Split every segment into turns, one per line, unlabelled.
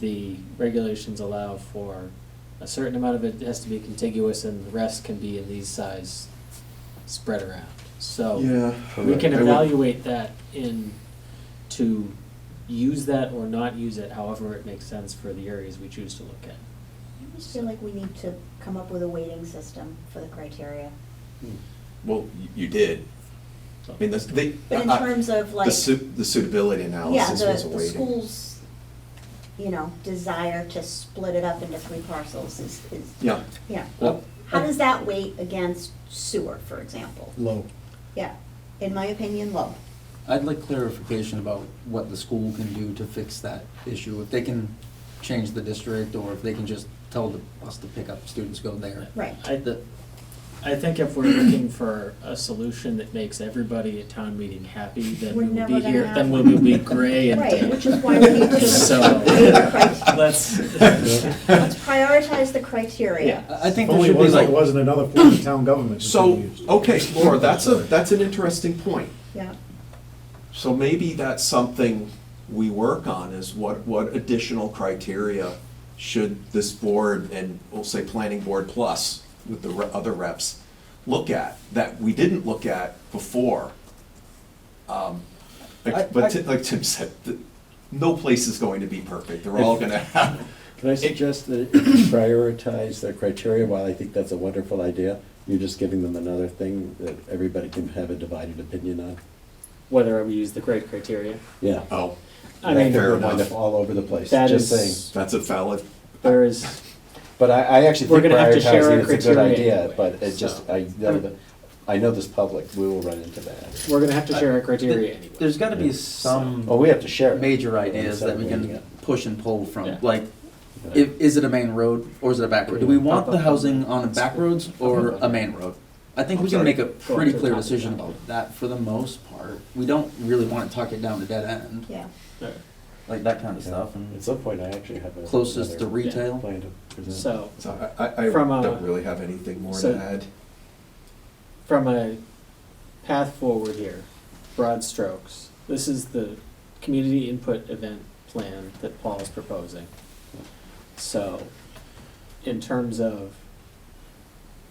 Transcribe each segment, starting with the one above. the regulations allow for a certain amount of it has to be contiguous and the rest can be in these size spread around.
Oh.
So
Yeah.
we can
I would-
evaluate that in, to use that or not use it, however it makes sense for the areas we choose to look at.
I just feel like we need to come up with a weighting system for the criteria.
Uh, Well, you- you did. I mean, this, they.
But in
I- I-
terms of like,
uh, The su- the suitability
yeah,
analysis
the,
was a
the
weighting.
school's, you know, desire to split it up into three parcels is, is,
Yeah,
yeah.
well,
How does that weight against sewer, for example?
low.
Yeah, in my opinion, low.
I'd like clarification about what the school can do to fix that issue. If they can change the district, or if they can just tell the- us to pick up students, go there.
Right.
I,
The-
I think if we're looking for a solution that makes everybody at town meeting happy, then
We're
we will
never
be
gonna
here,
have
then we
one.
will be gray and
Right, which is why we need to.
So-
Right.
Let's,
Let's prioritize the criteria.
Yeah.
I I think there
Only
should be
was like,
like,
wasn't another form of town government. that they
so,
used.
okay, Laura, that's a, that's an interesting point.
Yeah,
So maybe that's something we work on is what, what additional criteria should this board and we'll say planning board plus with the re- other reps look at that we didn't look at before? Um,
I-
Like, but
I-
Ti- like Tim said, th- no place is going to be perfect. They're all gonna have,
Can I suggest that you prioritize their criteria, while I think that's a wonderful idea, you're just giving them another thing that everybody can have a divided opinion on?
whether we use the grade criteria.
Yeah.
oh,
I
That
mean,
could
fair
wind
enough.
up All over the place,
That
just
is-
saying.
that's a valid,
There is,
But I, I actually
We're
think
gonna have to share our
prioritizing is a good
criteria
idea,
anyway,
but it just,
so.
I, know that- I know this public, we will run into that.
we're gonna have to share our criteria anyway.
there's gotta be some
Well, we have to share. it.
major ideas that we
Oh, Yeah.
can push and pull from.
Yeah.
Like, i- is it a main road or is it a back road? Do we want the housing on back roads or a main road? I think we can make a pretty clear decision about that for the most part. We don't really wanna tuck it down to dead end,
yeah.
like that kind of
Yeah.
stuff.
At
And
some point, I actually have a.
closest to
another
retail.
Plan to present.
So,
so I- I, I
From a-
don't really have anything more
so-
to add.
from a path forward here, broad strokes, this is the community input event plan that Paul is proposing. So, in terms of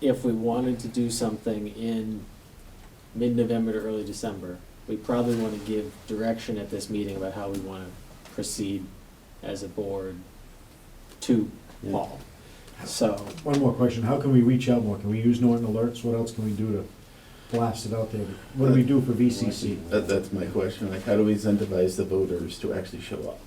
if we wanted to do something in mid-November to early December, we probably wanna give direction at this meeting about how we wanna proceed as a board to
Yeah.
Paul. So,
One more question, how can we reach out more? Can we use Norton alerts? What else can we do to blast it out there? What do we do for VCC?
That, that's my question, like, how do we incentivize the voters to actually show up?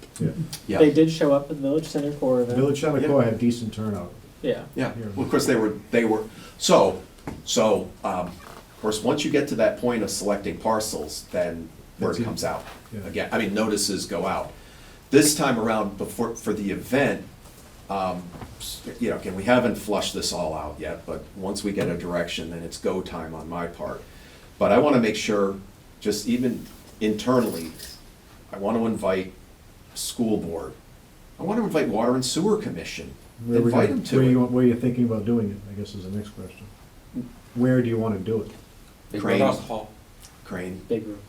Yeah.
They did show up at the Village Center Core event.
Village Center Core had decent turnout.
Yeah.
Yeah,
Here.
well, of course, they were, they were, so, so, um, of course, once you get to that point of selecting parcels, then word
That's it.
comes out.
Yeah.
Again, I mean, notices go out. This time around, before, for the event, um, s- you know, again, we haven't flushed this all out yet, but once we get a direction, then it's go time on my part. But I wanna make sure, just even internally, I wanna invite school board. I wanna invite water and sewer commission.
Where we-
Invite them to
Where
it.
you, where you're thinking about doing it, I guess is the next question. Where do you want to do it?
Big
Crane.
roads.
Crane.
Big room.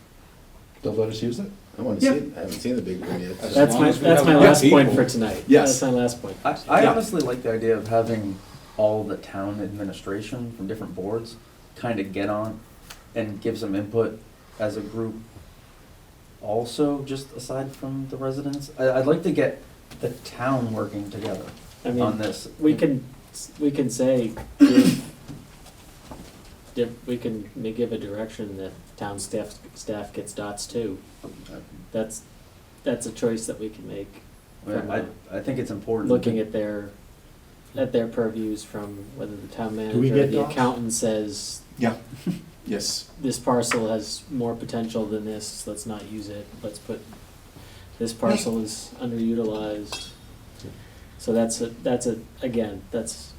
They'll let us use it?
I wanna see, it. I haven't seen the big one yet.
That's
long
my,
as we
that's
have
my
enough
last point
people.
for tonight.
Yes.
That's my last point.
I, I
Yeah.
honestly like the idea of having all the town administration from different boards kind of get on and give some input as a group. Also, just aside from the residents, I, I'd like to get the town working together
I
on
mean,
this.
we can, we can say, give- diff- we can ma- give a direction that town staff, staff gets dots too. That's, that's a choice that we can make,
I, I think it's important.
looking at their, at their purviews from whether the town
we
manager or
get
the
dots?
accountant says,
Yes.
this parcel has more potential than this, let's not use it, let's put, this parcel is underutilized. So that's a, that's a, again, that's,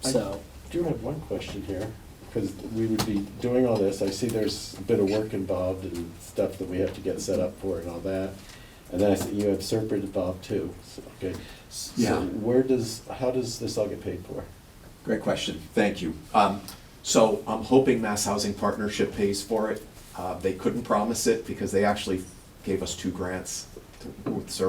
so,
I do have one question here, because we would be doing all this, I see there's a bit of work involved and stuff that we have to get set up for and all that. And then I see you have Serpent involved too, so, okay. S- so
Yeah.
Where does, how does this all get paid for?
Great question, thank you. Um, So I'm hoping Mass Housing Partnership pays for it. Uh, They couldn't promise it because they actually gave us two grants to- with Sur-